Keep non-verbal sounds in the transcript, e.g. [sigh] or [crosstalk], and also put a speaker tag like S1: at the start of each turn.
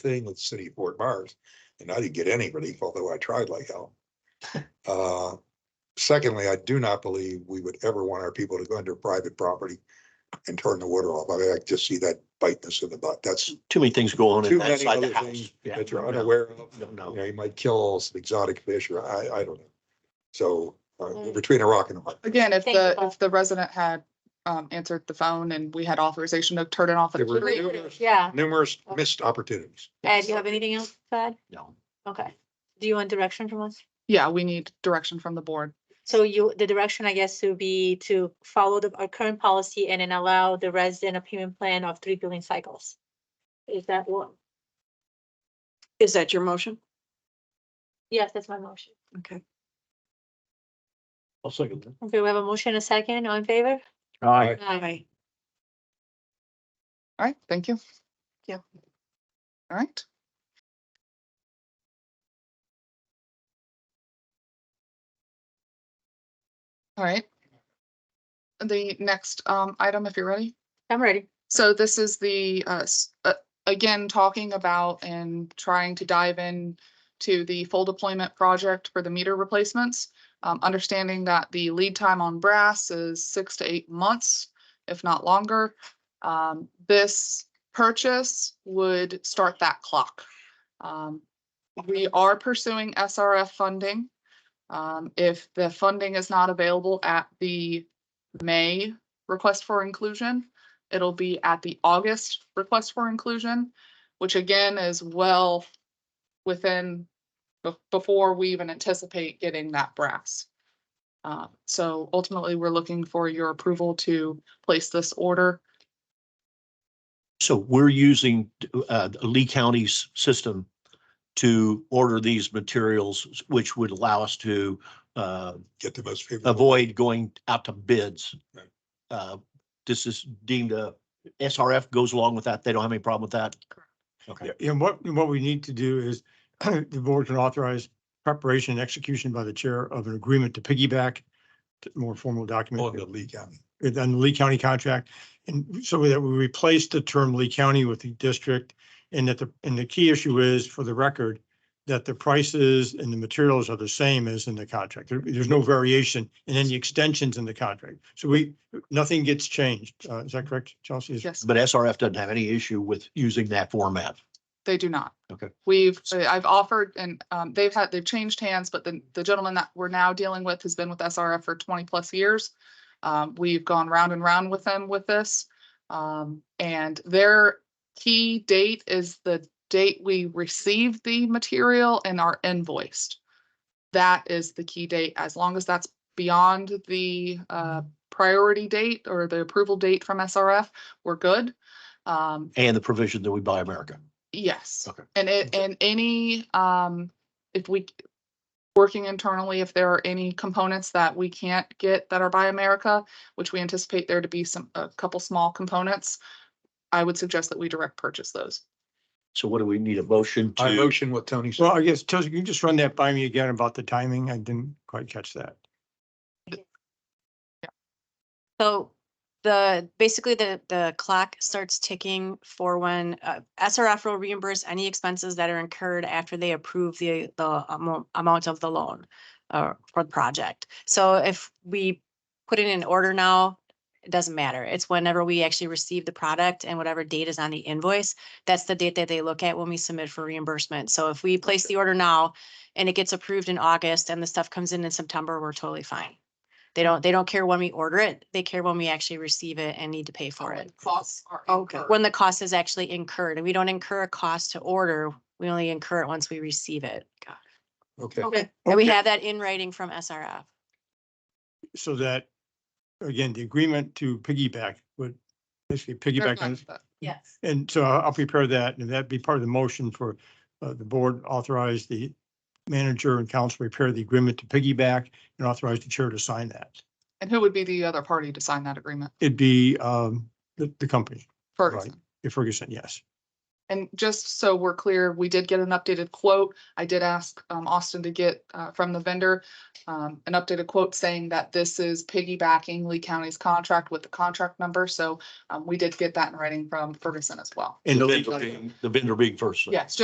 S1: thing with the city of Fort Myers, and I didn't get any relief, although I tried like
S2: [laughs]
S1: hell. Uh, Secondly, I do not believe we would ever want our people to go into private property and turn the water off. I mean, I just see that bite us in the butt. That's
S2: too many things going on
S1: too
S2: in
S1: many
S2: outside
S1: other
S2: the house.
S1: things
S2: Yeah,
S1: that you're
S2: no, no,
S1: unaware of.
S2: No,
S1: You
S2: no.
S1: know, you might kill some exotic fish or I, I don't know. So uh, we're
S3: Mm.
S1: between a rock and a hard.
S4: Again, if
S3: Thank you,
S4: the,
S3: Paul.
S4: if the resident had um answered the phone and we had authorization to turn it off. at
S1: They
S4: a
S1: were-
S4: later date,
S1: Numerous-
S3: Yeah,
S1: Numerous missed opportunities.
S3: Ed, you have anything else, Ed?
S2: No.
S3: Okay, do you want direction from us?
S4: Yeah, we need direction from the board.
S3: So you, the direction, I guess, would be to follow the, our current policy and then allow the resident opinion plan of three billion cycles. Is that what?
S5: Is that your motion?
S3: Yes, that's my motion.
S5: Okay.
S2: I'll second that.
S3: Okay, we have a motion, a second, all in favor?
S2: All right.
S5: Aye.
S4: All right, thank you.
S5: Yeah.
S4: All right. All right. The next um item, if you're ready.
S3: I'm ready.
S4: So this is the, uh, s- uh, again, talking about and trying to dive in to the full deployment project for the meter replacements. Um, understanding that the lead time on brass is six to eight months, if not longer. Um, this purchase would start that clock. Um, we are pursuing SRF funding. Um, if the funding is not available at the May request for inclusion, It'll be at the August request for inclusion, which again is well within, be- before we even anticipate getting that brass. Uh, So ultimately, we're looking for your approval to place this order.
S2: So we're using uh, Lee County's system to order these materials, which would allow us to uh,
S1: Get the most favorable.
S2: avoid going out to bids.
S1: Right.
S2: Uh, This is deemed a, SRF goes along with that. They don't have any problem with that. Okay.
S6: Yeah, And what, what we need to do is [clears throat] the board can authorize preparation and execution by the chair of an agreement to piggyback to more formal
S1: On
S6: document
S1: the Lee County.
S6: on the Lee County contract. And so that we replace the term Lee County with the district and that the, and the key issue is for the record that the prices and the materials are the same as in the contract. There- there's no variation in any extensions in the contract. So we, nothing gets changed. Uh, is that correct, Chelsea? Is-
S4: Yes,
S2: But SRF doesn't have any issue with using that format.
S4: they do not.
S2: Okay.
S4: We've, I've offered and um, they've had, they've changed hands, but the, the gentleman that we're now dealing with has been with SRF for twenty plus years. Um, we've gone round and round with them with this. Um, and their key date is the date we receive the material and are invoiced. That is the key date. As long as that's beyond the uh, priority date or the approval date from SRF, we're good. Um,
S2: and the provision that we buy America.
S4: Yes.
S2: Okay.
S4: And it, and any, um, if we, working internally, if there are any components that we can't get that are by America, which we anticipate there to be some, a couple small components, I would suggest that we direct purchase those.
S2: So what do we need a motion
S1: I
S2: to?
S1: motion what Tony said.
S6: Well, I guess, Chelsea, can you just run that by me again about the timing? I didn't quite catch that.
S5: So the, basically the, the clock starts ticking for when uh, SRF will reimburse any expenses that are incurred after they approve the, the amo- amount of the loan uh, for the project. So if we put it in order now, it doesn't matter. It's whenever we actually receive the product and whatever date is on the invoice, that's the date that they look at when we submit for reimbursement. So if we place the order now and it gets approved in August and the stuff comes in in September, we're totally fine. They don't, they don't care when we order it. They care when we actually receive it and need to pay for it.
S4: Costs are.
S5: Okay. When the cost is actually incurred and we don't incur a cost to order. We only incur it once we receive it.
S1: Okay.
S3: Okay.
S5: And we
S6: Okay.
S5: have that in writing from SRF.
S6: So that, again, the agreement to piggyback would basically piggyback on,
S5: Yes.
S6: and so I'll I'll prepare that and that'd be part of the motion for uh, the board authorize the manager and council repair the agreement to piggyback and authorize the chair to sign that.
S4: And who would be the other party to sign that agreement?
S6: It'd be um, the, the company,
S4: Ferguson.
S6: Ferguson, yes.
S4: And just so we're clear, we did get an updated quote. I did ask um, Austin to get uh, from the vendor um, an updated quote saying that this is piggybacking Lee County's contract with the contract number. So um, we did get that in writing from Ferguson as well.
S2: And the
S6: And the-
S2: vendor being- the vendor being first.
S4: Yes,